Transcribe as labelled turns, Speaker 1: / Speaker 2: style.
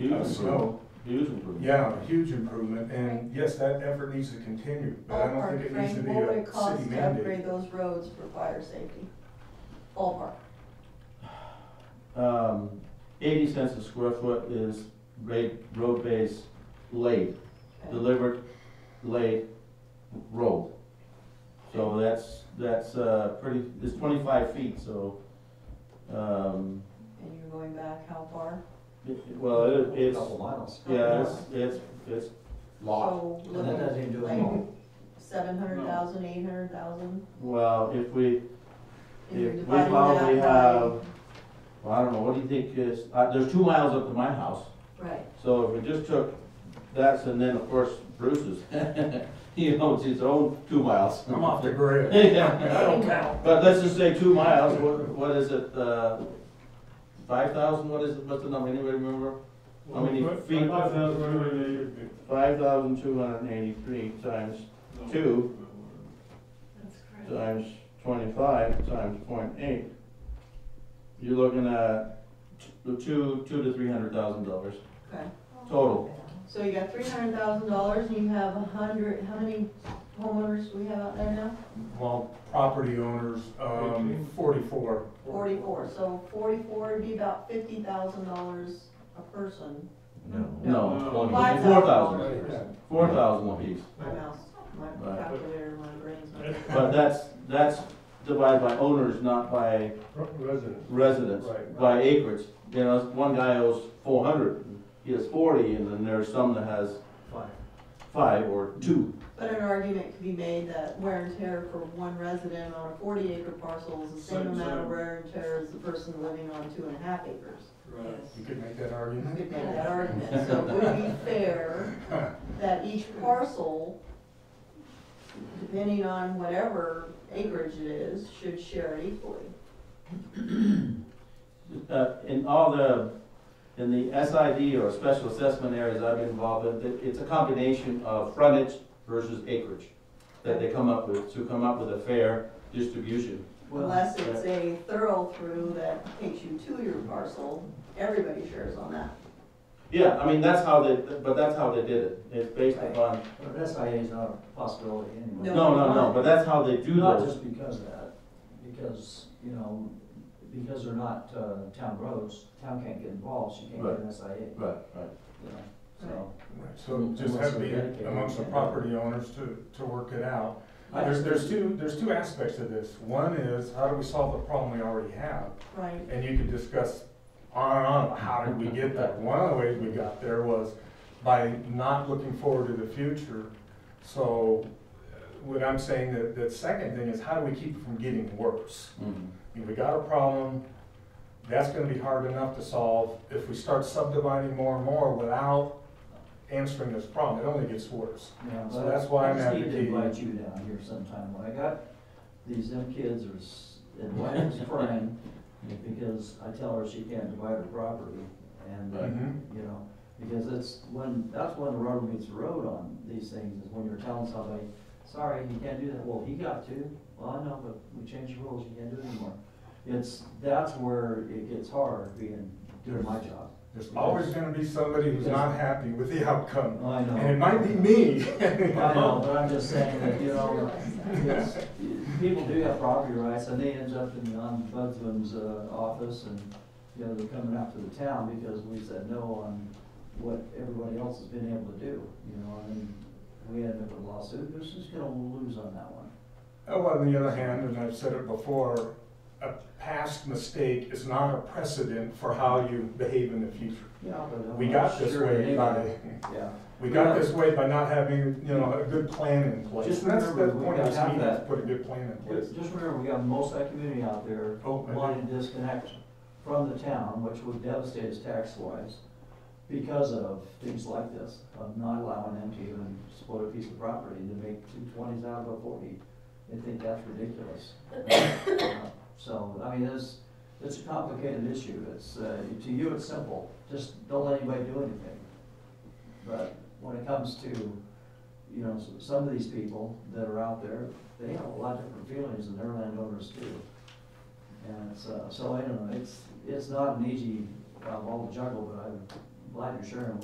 Speaker 1: huge
Speaker 2: Us, no.
Speaker 1: improvement. Huge improvement.
Speaker 2: Yeah, a huge improvement, and yes, that effort needs to continue, but I don't
Speaker 3: Ballpark,
Speaker 2: think it needs to
Speaker 3: Frank,
Speaker 2: be
Speaker 3: what would
Speaker 2: a
Speaker 3: it cost
Speaker 2: city
Speaker 3: to upgrade
Speaker 2: mandate.
Speaker 3: those roads for fire safety? Ballpark.
Speaker 1: Um, eighty cents a square foot is grade road base laid, delivered, laid, rolled. So that's, that's, uh, pretty, it's twenty-five feet, so, um,
Speaker 3: And you're going back how far?
Speaker 1: it- it- well, it- it's,
Speaker 4: Couple miles.
Speaker 1: yeah, it's, it's, it's lot.
Speaker 3: So,
Speaker 4: And that doesn't even do it
Speaker 3: Like-
Speaker 4: all.
Speaker 3: seven hundred thousand, eight hundred thousand?
Speaker 1: Well, if we,
Speaker 3: If you're
Speaker 1: If we
Speaker 3: dividing
Speaker 1: probably
Speaker 3: that by-
Speaker 1: have- well, I don't know, what do you think is, uh, there's two miles up to my house.
Speaker 3: Right,
Speaker 1: So if we just took that's and then of course Bruce's, he owns his own two miles.
Speaker 2: I'm off the grid.
Speaker 1: Yeah,
Speaker 2: I don't count.
Speaker 1: but let's just say two miles, what, what is it, uh, five thousand, what is it, what's the number, anybody remember? How many feet?
Speaker 5: Five thousand, whatever it should be.
Speaker 1: Five thousand two hundred and eighty-three times two
Speaker 3: that's correct.
Speaker 1: times twenty-five times point eight. You're looking at t- two, two to three hundred thousand dollars
Speaker 3: Okay,
Speaker 1: total.
Speaker 3: so you got three hundred thousand dollars and you have a hundred, how many homeowners we have out there now?
Speaker 2: Well, property owners, um, forty-four,
Speaker 3: Forty-four, so forty-four would be about fifty thousand dollars a person
Speaker 4: No.
Speaker 1: No,
Speaker 5: No.
Speaker 3: Five
Speaker 1: four
Speaker 3: thousand.
Speaker 1: thousand, four thousand apiece.
Speaker 3: My mouse, my
Speaker 1: Right.
Speaker 3: calculator, my brain's not.
Speaker 1: But that's, that's divided by owners, not by
Speaker 5: Residents.
Speaker 1: residents,
Speaker 5: Right.
Speaker 1: by acreage. You know, one guy owes four hundred, he has forty, and then there's some that has
Speaker 4: Five.
Speaker 1: five or two.
Speaker 3: But an argument could be made that wear and tear for one resident on a forty acre parcel is the same
Speaker 5: Same,
Speaker 3: amount of
Speaker 5: same.
Speaker 3: wear and tear as the person living on two and a half acres.
Speaker 2: you could make that argument.
Speaker 3: You could make that argument, so it would be fair that each parcel, depending on whatever acreage it is, should share equally.
Speaker 1: Uh, in all the, in the SID or special assessment areas I've been involved in, it- it's a combination of frontage versus acreage that they come up with, to come up with a fair distribution.
Speaker 4: Well,
Speaker 3: Unless it's a thorough through that takes you to your parcel, everybody shares on that.
Speaker 1: Yeah, I mean, that's how they, but that's how they did it, it's based
Speaker 3: Right.
Speaker 1: upon
Speaker 4: but SIA is not a possibility anyway.
Speaker 3: No.
Speaker 1: No, no, no, but that's how they do
Speaker 4: Not
Speaker 1: those.
Speaker 4: just because of that, because, you know, because they're not, uh, town roads, town can't get involved, so you can't get an SIA,
Speaker 1: Right, right.
Speaker 4: you know, so.
Speaker 2: So just have the, amongst the property owners to, to work it out. There's, there's two, there's two aspects to this. One is, how do we solve the problem we already have?
Speaker 3: Right.
Speaker 2: And you could discuss on and on, about how did we get there? One of the ways we got there was by not looking forward to the future. So uh, what I'm saying, that, that second thing is, how do we keep it from getting worse? If we got a problem, that's gonna be hard enough to solve. If we start subdividing more and more without answering this problem, it only gets worse.
Speaker 4: Yeah,
Speaker 2: So
Speaker 4: but
Speaker 2: that's why I'm
Speaker 4: I just need
Speaker 2: advocating-
Speaker 4: to invite you down here sometime, when I got, these them kids are, s- and wife is crying, because I tell her she can't divide her property, and, uh,
Speaker 2: Mhm.
Speaker 4: you know, because it's when, that's when the rubber meets the road on these things, is when you're telling somebody, sorry, you can't do that, well, he got to, well, I know, but we changed the rules, you can't do it anymore. It's, that's where it gets hard, being, doing my job.
Speaker 2: There's always gonna be somebody who's not happy with the outcome.
Speaker 4: I know.
Speaker 2: And it might be me.
Speaker 4: I know, but I'm just saying that, you know,
Speaker 3: Realize that.
Speaker 4: it's, people do have property rights, and they end up in the ombudsman's, uh, office, and, you know, they're coming after the town because we said no on what everybody else has been able to do, you know, and we ended up with a lawsuit, who's just gonna lose on that one?
Speaker 2: Oh, well, on the other hand, and I've said it before, a past mistake is not a precedent for how you behave in the future.
Speaker 4: Yeah, but I'm
Speaker 2: We
Speaker 4: not
Speaker 2: got this
Speaker 4: sure
Speaker 2: way
Speaker 4: anybody-
Speaker 2: by,
Speaker 4: Yeah.
Speaker 2: we got this way by not having, you know, a good plan in place.
Speaker 4: Just
Speaker 2: And that's the
Speaker 4: remember, we
Speaker 2: point I was
Speaker 4: gotta have
Speaker 2: meaning, is
Speaker 4: that.
Speaker 2: put a good plan in place.
Speaker 4: Just just remember, we got most of that community out there
Speaker 2: Oh, I do.
Speaker 4: wanting to disconnect from the town, which would devastate us tax-wise because of things like this, of not allowing them to even split a piece of property to make two twenties out of a forty. They think that's ridiculous. Uh, So, I mean, it's, it's a complicated issue. It's, uh, to you, it's simple. Just don't let anybody do anything. But when it comes to, you know, s- some of these people that are out there, they have a lot different feelings than their landowners do. And it's, uh, so I don't know, it's, it's not an easy, uh, ball to juggle, but I Blind or Sharon